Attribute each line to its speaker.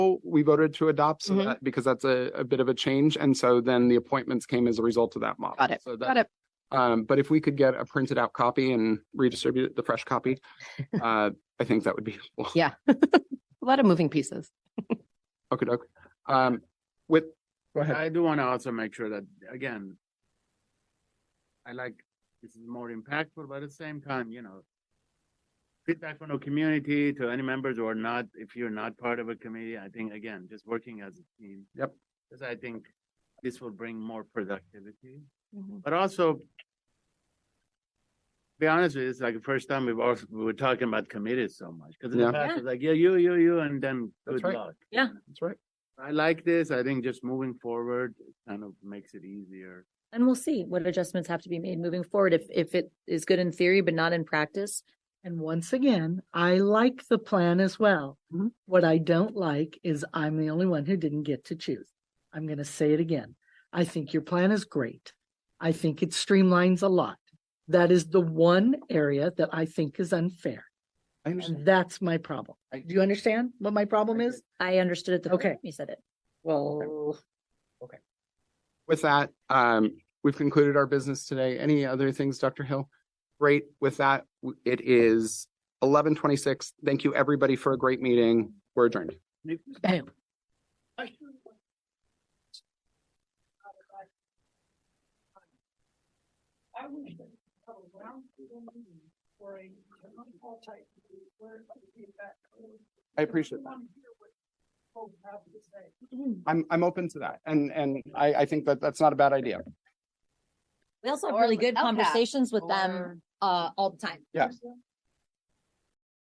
Speaker 1: we voted to adopt so
Speaker 2: Mhm.
Speaker 1: that, because that's a, a bit of a change. And so then the appointments came as a result of that model.
Speaker 2: Got it.
Speaker 1: So that-
Speaker 2: Got it.
Speaker 1: Um, but if we could get a printed out copy and redistribute the fresh copy, uh, I think that would be helpful.
Speaker 2: Yeah. A lot of moving pieces.
Speaker 1: Okay, doke. Um, with, go ahead.
Speaker 3: I do want to also make sure that, again, I like, this is more impactful, but at the same time, you know, feedback from the community to any members or not, if you're not part of a committee, I think, again, just working as a team.
Speaker 1: Yep.
Speaker 3: Because I think this will bring more productivity, but also be honest with you, it's like the first time we've also, we were talking about committees so much. Because in
Speaker 1: Yeah.
Speaker 3: the past, it's like, yeah, you, you, you, and then
Speaker 1: That's
Speaker 3: good
Speaker 1: right.
Speaker 3: luck.
Speaker 1: That's right.
Speaker 3: I like this. I think just moving forward kind of makes it easier.
Speaker 4: And we'll see what adjustments have to be made moving forward if, if it is good in theory, but not in practice.
Speaker 5: And once again, I like the plan as well.
Speaker 1: Mhm.
Speaker 5: What I don't like is I'm the only one who didn't get to choose. I'm going to say it again. I think your plan is great. I think it streamlines a lot. That is the one area that I think is unfair.
Speaker 1: I understand.
Speaker 5: And that's my problem. Do you understand what my problem is?
Speaker 4: I understood it the first
Speaker 5: Okay.
Speaker 4: time you said it.
Speaker 5: Well,
Speaker 1: With that, um, we've concluded our business today. Any other things, Dr. Hill? Great. With that, w- it is eleven twenty-six. Thank you, everybody, for a great meeting. We're adjourned.
Speaker 5: bam.
Speaker 1: I appreciate that. I'm, I'm open to that. And, and I, I think that that's not a bad idea.
Speaker 4: We also
Speaker 6: Or
Speaker 4: have really
Speaker 6: with
Speaker 4: good
Speaker 6: LCAP
Speaker 4: conversations with them, uh, all the time.
Speaker 1: Yeah.